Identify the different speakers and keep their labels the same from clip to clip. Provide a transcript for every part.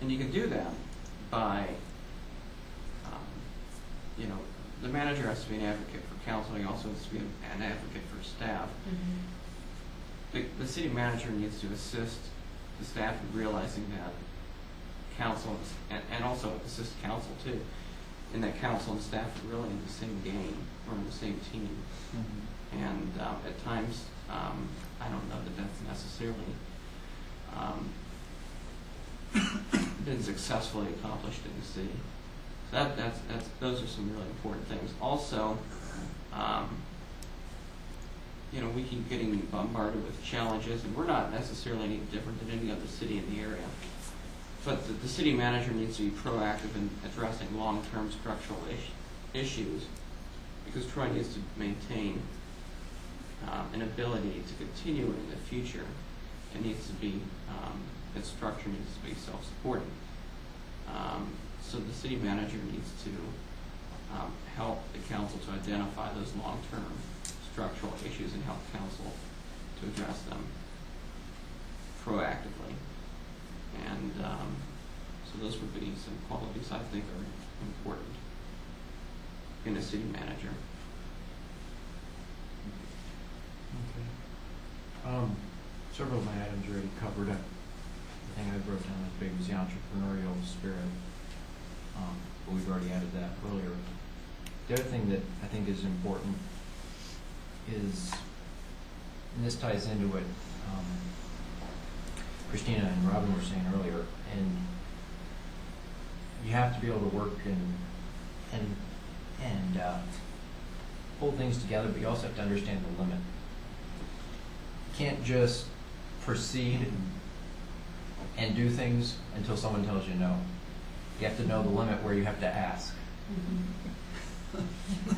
Speaker 1: And you can do that by, um, you know, the manager has to be an advocate for council, he also has to be an advocate for staff.
Speaker 2: Mm-hmm.
Speaker 1: The, the city manager needs to assist the staff in realizing that council, is- and, and also assist council too, in that council and staff are really in the same game, or in the same team. And um, at times, um, I don't know that that's necessarily um, been successfully accomplished in the city. So that, that's, that's, those are some really important things. Also, um, you know, we keep getting bombarded with challenges, and we're not necessarily any different than any other city in the area. But the, the city manager needs to be proactive in addressing long-term structural is- issues because Troy needs to maintain um, an ability to continue in the future. It needs to be, um, its structure needs to be self-supporting. Um, so the city manager needs to um, help the council to identify those long-term structural issues and help council to address them proactively. And um, so those would be some qualities I think are important in a city manager.
Speaker 3: Okay. Um, several of my items already covered up. The thing I wrote down as big was the entrepreneurial spirit. Um, but we've already added that earlier. The other thing that I think is important is, and this ties into what, um, Christina and Robin were saying earlier, and you have to be able to work and, and, and, uh, hold things together, but you also have to understand the limit can't just proceed and, and do things until someone tells you no. You have to know the limit where you have to ask.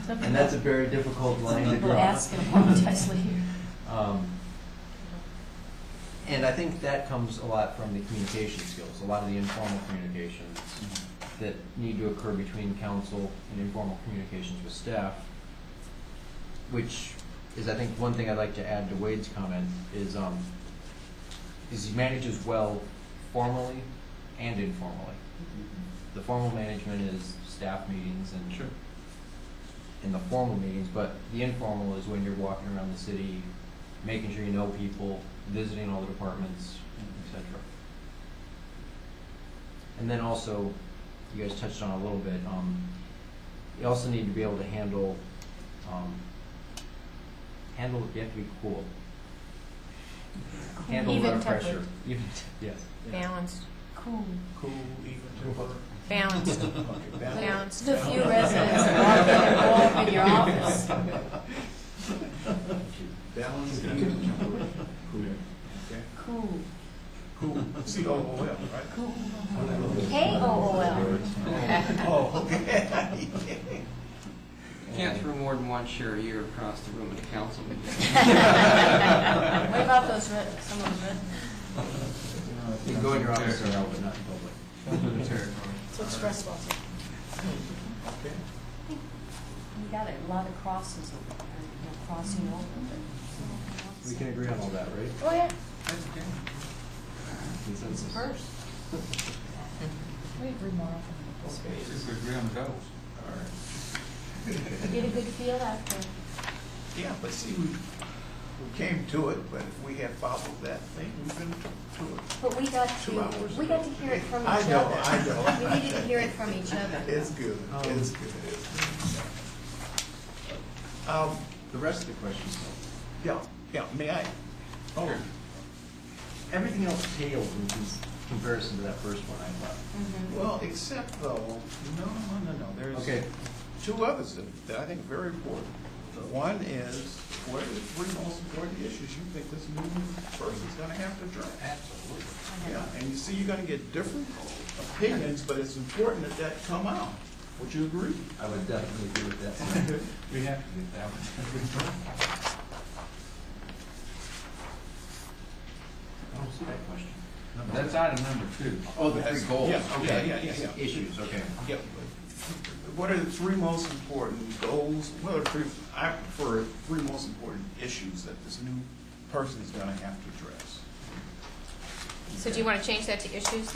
Speaker 3: And that's a very difficult line to
Speaker 2: People
Speaker 3: draw.
Speaker 2: ask and apologize later.
Speaker 3: Um, and I think that comes a lot from the communication skills, a lot of the informal communications that need to occur between council and informal communications with staff, which is, I think, one thing I'd like to add to Wade's comment is, um, is he manages well formally and informally. The formal management is staff meetings and
Speaker 1: Sure.
Speaker 3: in the formal meetings, but the informal is when you're walking around the city, making sure you know people, visiting all the departments, et cetera. And then also, you guys touched on a little bit, um, you also need to be able to handle, um, handle, you have to be cool. Handle a lot
Speaker 2: Even
Speaker 3: of
Speaker 2: tempered.
Speaker 3: pressure. Even, yes.
Speaker 4: Balanced,
Speaker 2: Cool.
Speaker 5: Cool, even temper.
Speaker 4: balanced,
Speaker 2: Balanced.
Speaker 4: balanced.
Speaker 2: The few residents walking involved in your office.
Speaker 5: Balance, even temper.
Speaker 2: Cool.
Speaker 5: Cool, C O O L, right?
Speaker 2: Cool. K O O L.
Speaker 5: Oh, okay.
Speaker 1: You can't throw more than one chair a year across the room at a council meeting.
Speaker 2: What about those red, some of those red?
Speaker 3: You can go in your office or out, but not in public.
Speaker 2: So it's stressful. You got a lot of crosses over there, you know, crossing over, but.
Speaker 3: We can agree on all that, right?
Speaker 2: Oh, yeah, it's
Speaker 3: Consensus.
Speaker 2: first.
Speaker 4: Mm-hmm.
Speaker 2: We agree more often. Get a good feel after.
Speaker 5: Yeah, but see, we, we came to it, but if we had followed that thing, we've been to to it.
Speaker 2: But we got to,
Speaker 5: Two hours.
Speaker 2: we got to hear it from each
Speaker 5: I
Speaker 2: other.
Speaker 5: know, I know.
Speaker 2: We needed to hear it from each other.
Speaker 5: It's good, it's good, it's good. Um,
Speaker 3: The rest of the questions, though.
Speaker 5: yeah, yeah, may I? Oh,
Speaker 3: Everything else pales in cons- comparison to that first one I thought.
Speaker 2: Mhm.
Speaker 5: well, except though, no, no, no, no, there's.
Speaker 3: Okay,
Speaker 5: two others that- that I think are very important. One is, what are the three most important issues you think this new person's gonna have to address? Absolutely. Yeah, and you see, you're gonna get different opinions, but it's important that that come out. Would you agree?
Speaker 3: I would definitely agree with that.
Speaker 5: We have to get that one.
Speaker 3: I don't see that question.
Speaker 6: That's item number two.
Speaker 3: Oh, the three goals,
Speaker 5: Yeah, yeah,
Speaker 3: okay.
Speaker 5: yeah, yeah, yeah.
Speaker 3: Issues, okay.
Speaker 5: Yep. What are the three most important goals, what are the three, I prefer three most important issues that this new person is gonna have to address?
Speaker 4: So do you want to change that to issues then?